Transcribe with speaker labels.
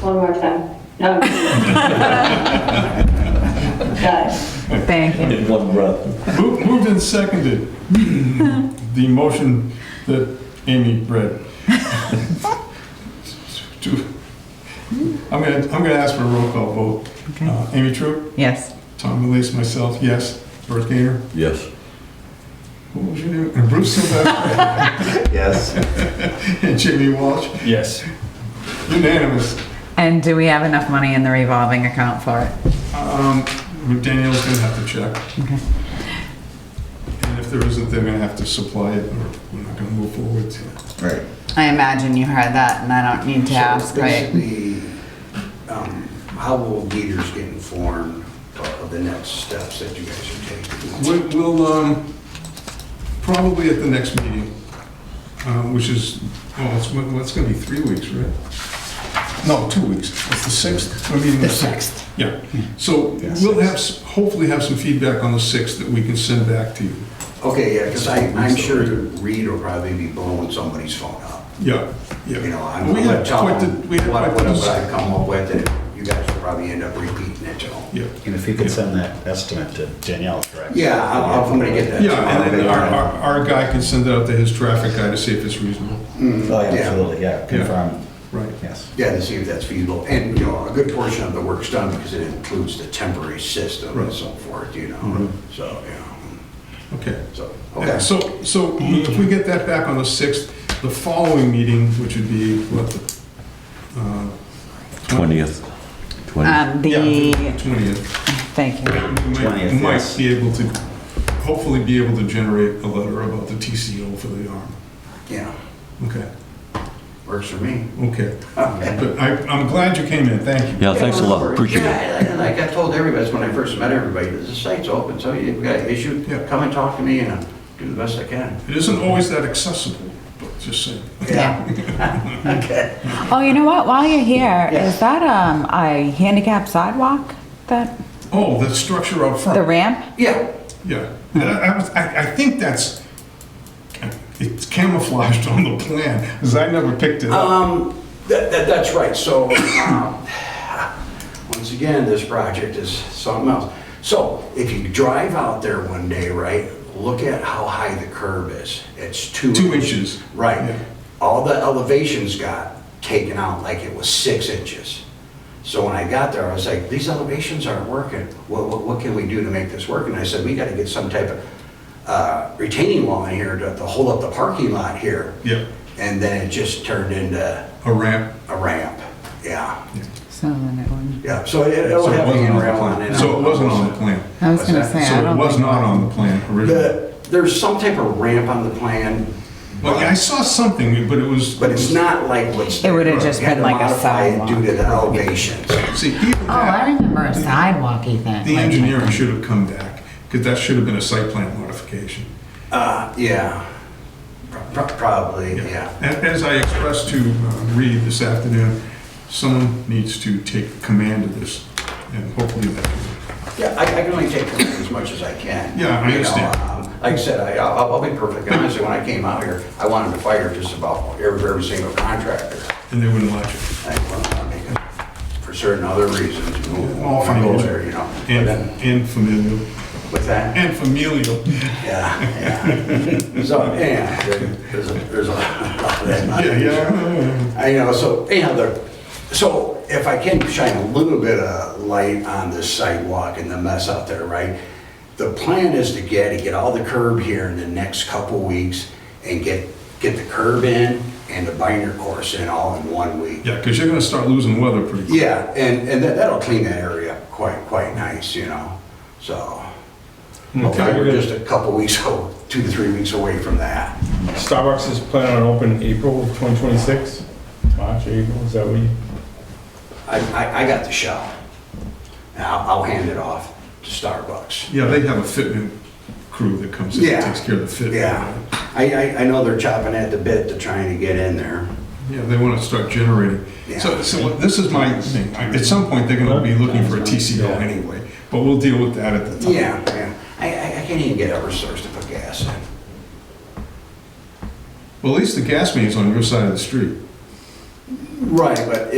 Speaker 1: One more time. No. Got it.
Speaker 2: Thank you.
Speaker 3: In one breath.
Speaker 4: Mo- Moved and seconded, the motion that Amy read. To- I'm gonna, I'm gonna ask for a roll call vote.
Speaker 2: Okay.
Speaker 4: Uh, Amy Troop,
Speaker 2: Yes.
Speaker 4: Tom Elise, myself, yes. Bert Gainer,
Speaker 3: Yes.
Speaker 4: what was your name? And Bruce Sylvester,
Speaker 5: Yes.
Speaker 4: and Jamie Walsh,
Speaker 5: Yes.
Speaker 4: unanimous.
Speaker 2: And do we have enough money in the revolving account for it?
Speaker 4: Um, Danielle's gonna have to check,
Speaker 2: Okay.
Speaker 4: and if there isn't, they're gonna have to supply it, or we're not gonna move forward.
Speaker 5: Right.
Speaker 2: I imagine you heard that and I don't need to
Speaker 6: So
Speaker 2: ask, right?
Speaker 6: Basically, um, how will leaders get informed of the next steps that you guys are taking?
Speaker 4: We- We'll, um, probably at the next meeting, uh, which is, oh, it's, well, it's gonna be three weeks, right? No, two weeks, it's the sixth, I mean, the sixth, yeah. So
Speaker 5: Yeah,
Speaker 4: we'll
Speaker 5: sixth.
Speaker 4: have, s- hopefully have some feedback on the sixth that we can send back to you.
Speaker 6: Okay, yeah, because I, I'm sure Reed will probably be blowing somebody's phone up.
Speaker 4: Yeah, yeah.
Speaker 6: You know, I'm
Speaker 4: We
Speaker 6: gonna
Speaker 4: had
Speaker 6: tell
Speaker 4: quite the,
Speaker 6: them
Speaker 4: we had
Speaker 6: what
Speaker 4: quite
Speaker 6: what
Speaker 4: the,
Speaker 6: I
Speaker 4: dis-
Speaker 6: come up with, and you guys will probably end up repeating it, you know?
Speaker 4: yeah.
Speaker 5: And if you could send that estimate to Danielle, correct?
Speaker 6: Yeah, I'll- I'm gonna get that.
Speaker 4: Yeah, and then our, our, our guy can send it out to his traffic guy to see if it's reasonable,
Speaker 5: Oh, yeah, absolutely, yeah, confirm,
Speaker 4: right?
Speaker 5: yes.
Speaker 6: Yeah, to see if that's feasible, and, you know, a good portion of the work's done because it includes the temporary system and
Speaker 4: Right.
Speaker 6: so forth, you know? So, you know,
Speaker 4: Okay.
Speaker 6: so,
Speaker 4: Yeah,
Speaker 6: okay.
Speaker 4: So, so if we get that back on the 6th, the following meeting, which would be what, the uh,
Speaker 3: 20th. 20th.
Speaker 2: Um,
Speaker 4: yeah,
Speaker 2: the,
Speaker 4: 20th,
Speaker 2: thank you.
Speaker 4: we might-
Speaker 5: 20th,
Speaker 4: we might
Speaker 5: yes.
Speaker 4: be able to, hopefully be able to generate a letter about the TCO for the arm.
Speaker 6: Yeah,
Speaker 4: Okay,
Speaker 6: works for me.
Speaker 4: okay. But I, I'm glad you came in, thank you.
Speaker 3: Yeah, thanks a lot, appreciate it.
Speaker 6: Yeah, and Like I told everybody, it's when I first met everybody, the site's open, so you've got an issue,
Speaker 4: Yeah.
Speaker 6: come and talk to me and I'll do the best I can.
Speaker 4: It isn't always that accessible, but just saying.
Speaker 2: Yeah.
Speaker 6: Okay.
Speaker 2: Oh, you know what? While you're here,
Speaker 6: Yeah.
Speaker 2: is that, um, a handicap sidewalk? That,
Speaker 4: Oh, the structure up front.
Speaker 2: the ramp?
Speaker 6: Yeah,
Speaker 4: Yeah, And I, I was- I, I think that's, it's camouflaged on the plan, because I never picked it up.
Speaker 6: um, that, that, that's right, so, um, once again, this project is something else. So, if you drive out there one day, right, look at how high the curb is, it's two.
Speaker 4: Two inches. Yeah.
Speaker 6: Right, all the elevations got taken out like it was six inches. So when I got there, I was like, these elevations aren't working. What, what, what can we do to make this work? And I said, we gotta get some type of uh, retaining wall in here to, to hold up the parking lot here.
Speaker 4: Yeah.
Speaker 6: And then it just turned into
Speaker 4: A ramp.
Speaker 6: a ramp, yeah,
Speaker 2: So then it wouldn't.
Speaker 6: yeah. So it- it'll
Speaker 4: So it
Speaker 6: have
Speaker 4: wasn't on the
Speaker 6: handrail on it.
Speaker 4: plan. So it wasn't on the plan.
Speaker 2: I was
Speaker 6: What's
Speaker 2: gonna
Speaker 6: that?
Speaker 2: say, I
Speaker 4: So it
Speaker 2: don't
Speaker 4: was
Speaker 2: think.
Speaker 4: not on the plan originally.
Speaker 6: The- There's some type of ramp on the plan.
Speaker 4: Well, I saw something, but it was.
Speaker 6: But it's not like what's.
Speaker 2: It would've just
Speaker 6: You had
Speaker 2: been
Speaker 6: to
Speaker 2: like a
Speaker 6: modify it Due to the
Speaker 2: sidewalk.
Speaker 6: elevations.
Speaker 4: See, even
Speaker 2: Oh, I
Speaker 4: that,
Speaker 2: remember a sidewalky thing.
Speaker 4: the
Speaker 2: like-
Speaker 4: engineering should have come back, because that should have been a site plan modification.
Speaker 6: Uh, yeah, Pro- pro- probably, yeah.
Speaker 4: And as I expressed to uh, Reed this afternoon, someone needs to take command of this, and hopefully that
Speaker 6: Yeah, I, I can only take from it as much as I can.
Speaker 4: Yeah, I
Speaker 6: You know,
Speaker 4: understand.
Speaker 6: um, Like I said, I, I'll, I'll be perfectly honest, when I came out here, I wanted to fire just about every, every single contractor.
Speaker 4: and they wouldn't let you.
Speaker 6: I wanted to make it For certain other reasons, move
Speaker 4: All
Speaker 6: on
Speaker 4: familial.
Speaker 6: there, you know. But
Speaker 4: And,
Speaker 6: then-
Speaker 4: and familial.
Speaker 6: What's that?
Speaker 4: And familial.
Speaker 6: Yeah, yeah. So, yeah, there's a, there's a lot of that.
Speaker 4: Yeah, yeah.
Speaker 6: I know, so anyhow, the, so if I can shine a little bit of light on this sidewalk and the mess out there, right? The plan is to get, to get all the curb here in the next couple weeks and get, get the curb in and the binder course in all in one week.
Speaker 4: Yeah, because you're gonna start losing weather pretty quick.
Speaker 6: Yeah, and, and that- that'll clean that area up quite, quite nice, you know, so. Hopefully, we're just a couple weeks, o- two to three weeks away from that.
Speaker 7: Starbucks is planning on opening April of 2026? March, April, is that what you?
Speaker 6: I, I, I got the shell. And I'll, I'll hand it off to Starbucks.
Speaker 4: Yeah, they have a fitment crew that comes in and
Speaker 6: Yeah.
Speaker 4: takes care of the fitment.
Speaker 6: Yeah. I, I, I know they're chopping at the bit to trying to get in there.
Speaker 4: Yeah, they want to start generating. So,
Speaker 6: Yeah.
Speaker 4: so this is my thing. At some point, they're gonna be looking for a TCO
Speaker 7: Yeah.
Speaker 4: anyway, but we'll deal with that at the time.
Speaker 6: Yeah, yeah. I, I, I can't even get Eversource to put gas in.
Speaker 4: Well, at least the gas main's on your side of the street.
Speaker 6: Right, but